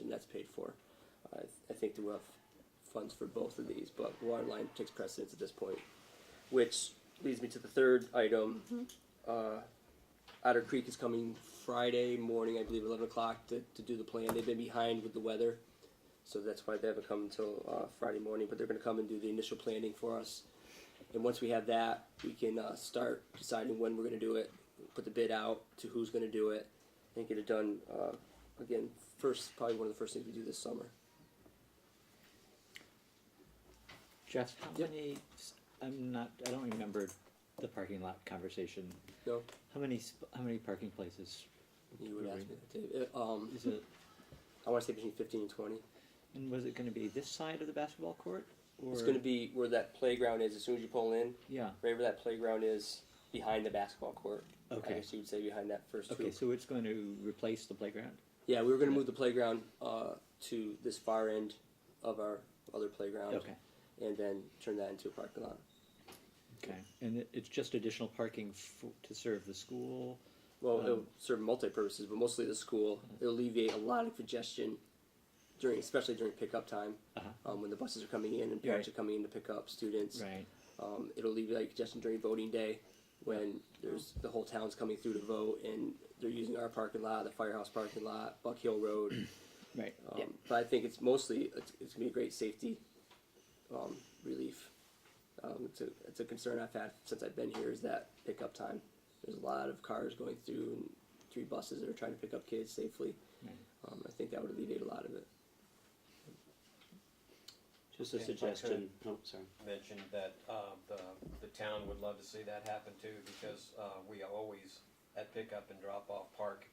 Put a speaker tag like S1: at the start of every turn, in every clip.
S1: and that's paid for. I, I think that we'll have funds for both of these, but water line takes precedence at this point, which leads me to the third item. Uh, Otter Creek is coming Friday morning, I believe, eleven o'clock to, to do the plan. They've been behind with the weather, so that's why they haven't come until uh, Friday morning. But they're going to come and do the initial planning for us. And once we have that, we can uh, start deciding when we're going to do it, put the bid out to who's going to do it, and get it done. Uh, again, first probably one of the first things we do this summer.
S2: Jeff, how
S1: Yep.
S2: many, I'm not, I don't remember the parking lot conversation.
S1: No,
S2: How many, sp- how many parking places?
S1: you would
S2: were
S1: ask
S2: we-
S1: me that. Dave. Uh, Um,
S2: Is it,
S1: I want to say between fifteen and twenty.
S2: and was it gonna be this side of the basketball court? Or
S1: It's going to be where that playground is. As soon as you pull in,
S2: Yeah,
S1: right where that playground is, behind the basketball court. I
S2: okay,
S1: guess you would say behind that first
S2: okay,
S1: hoop.
S2: so it's going to replace the playground?
S1: Yeah, we were gonna move the playground uh, to this far end of our other playground,
S2: Okay,
S1: and then turn that into a parking lot.
S2: okay, and it, it's just additional parking f- to serve the school?
S1: Well, it'll
S2: Um, Mm-hmm.
S1: serve multi purposes, but mostly the school. It'll alleviate a lot of congestion during, especially during pickup time,
S2: Uh-huh.
S1: um, when the buses are coming in and parents
S2: Right.
S1: are coming in to pick up students.
S2: Right,
S1: Um, it'll alleviate congestion during voting day when there's the whole town's coming through to vote and they're using our parking lot, the firehouse parking lot, Buck Hill Road.
S2: right,
S1: Um,
S2: yeah,
S1: But I think it's mostly it's, it's gonna be a great safety um, relief. Um, it's, a, it's a concern I've had since I've been here is that pickup time. There's a lot of cars going through and three buses that are trying to pick up kids safely.
S2: right.
S1: Um, I think that would alleviate a lot of it.
S3: Just
S4: Yeah,
S3: a
S4: if I could.
S3: suggestion, oh, sorry.
S4: mentioned that uh, the, the town would love to see that happen too, because uh, we always, at pickup and drop-off, park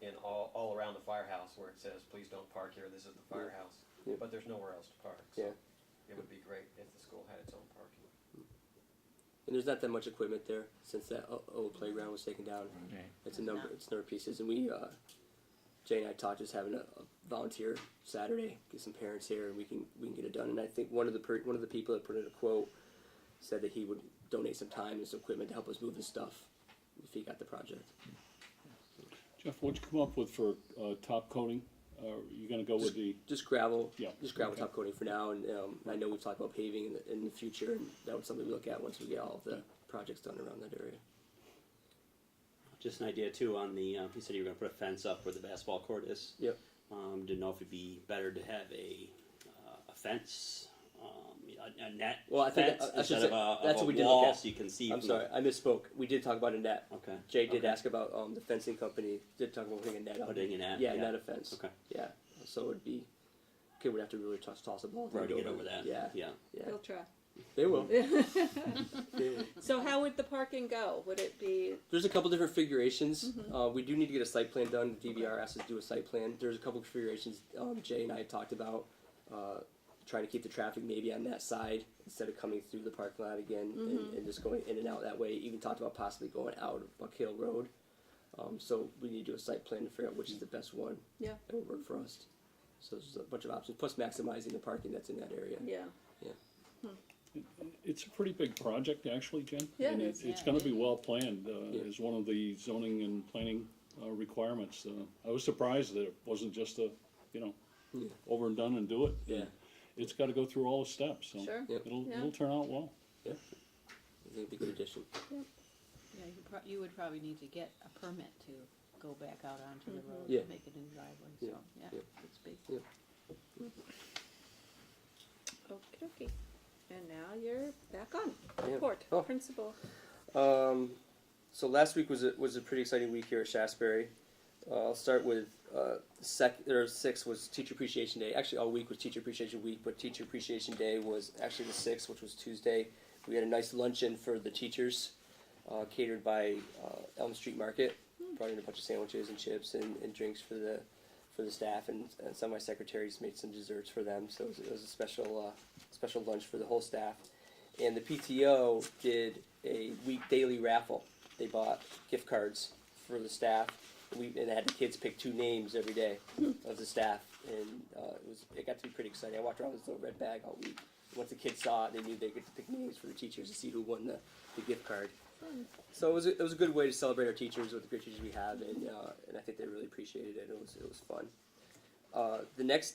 S4: in all, all around the firehouse where it says, please don't park here, this is the firehouse.
S1: Yeah.
S4: But there's nowhere else to park, so
S1: Yeah,
S4: it would be great if the school had its own parking.
S1: and there's not that much equipment there since that o- old playground was taken down.
S2: Right.
S1: It's a number. It's a number of pieces, and we, uh, Jay and I talked just having a, a volunteer Saturday, get some parents here, and we can we can get it done. And I think one of the per, one of the people that put in a quote said that he would donate some time and some equipment to help us move the stuff if he got the project.
S5: Jeff, what'd you come up with for uh, top coating? Uh, Are you gonna go with the,
S1: Just gravel,
S5: Yeah,
S1: just gravel
S5: okay.
S1: top coating for now, and um, I know we've talked about paving in the, in the future, and that was something we look at once we get all of the projects done around that area.
S3: Just an idea too on the, um, you said you were gonna put a fence up where the basketball court is.
S1: Yep.
S3: Um, didn't know if it'd be better to have a, uh, a fence, um, a, a net
S1: Well, I think
S3: fence
S1: I- I should
S3: instead
S1: say-
S3: of a, of
S1: that's
S3: a
S1: what we did look
S3: wall
S1: at.
S3: so you can see.
S1: I'm
S3: from-
S1: sorry, I misspoke. We did talk about a net.
S3: Okay.
S1: Jay did
S3: okay.
S1: ask about um, the fencing company. Did talk about putting a net up.
S3: Putting a net,
S1: Yeah,
S3: yeah.
S1: net offense.
S3: Okay.
S1: Yeah. So it'd be kid would have to really toss toss a ball.
S3: Right, to get over that.
S1: Yeah.
S3: Yeah.
S1: Yeah.
S6: He'll try.
S1: They will.
S6: So how would the parking go? Would it be
S1: There's a couple different configurations. Uh, we do need to get a site plan done. The DVR asked us to do a site plan. There's a couple configurations um, Jay and I talked about. Uh, trying to keep the traffic maybe on that side instead of coming through the parking lot again and, and just going in and out that way. Even talked about possibly going out of Buck Hill Road. Um, so we need to do a site plan to figure out which is the best one.
S6: Yeah.
S1: That will work for us. So there's a bunch of options, plus maximizing the parking that's in that area.
S6: yeah?
S5: it's a pretty big project, actually, Jen.
S6: Yeah, it
S5: And
S6: is,
S5: It's gonna be well planned, uh,
S1: Yeah.
S5: is one of the zoning and planning uh, requirements. Uh, I was surprised that it wasn't just a, you know,
S1: Yeah.
S5: over and done and do it.
S1: Yeah.
S5: It's gotta go through all the steps, so
S6: Sure.
S1: Yep.
S5: it'll,
S6: Yeah.
S5: it'll turn out well.
S1: I think it'd be a good addition.
S7: Yeah, you prob- you would probably need to get a permit to go back out onto the road
S1: Yeah.
S7: and make a new driveway,
S1: Yeah,
S7: so, yeah,
S1: yeah.
S7: it's big.
S6: Okay, okay. And now you're back on
S1: Yeah.
S6: court
S1: Oh.
S6: principal.
S1: Um, so last week was a, was a pretty exciting week here at Shasberry. Uh, I'll start with uh, sec. Or six was Teacher Appreciation Day. Actually, all week was Teacher Appreciation Week, but Teacher Appreciation Day was actually the sixth, which was Tuesday. We had a nice luncheon for the teachers, uh, catered by uh, Elm Street Market. Brought in a bunch of sandwiches and chips and, and drinks for the for the staff, and, and some of my secretaries made some desserts for them. So it was, it was a special uh, special lunch for the whole staff and the PTO did a week daily raffle. They bought gift cards for the staff. We and had the kids pick two names every day of the staff, and uh, it was it got to be pretty exciting. I walked around with this little red bag all week. Once the kids saw it, they knew they could pick names for the teachers to see who won the, the gift card. So it was a, it was a good way to celebrate our teachers with the great teachers we have, and uh, and I think they really appreciated it. It was it was fun. Uh, the next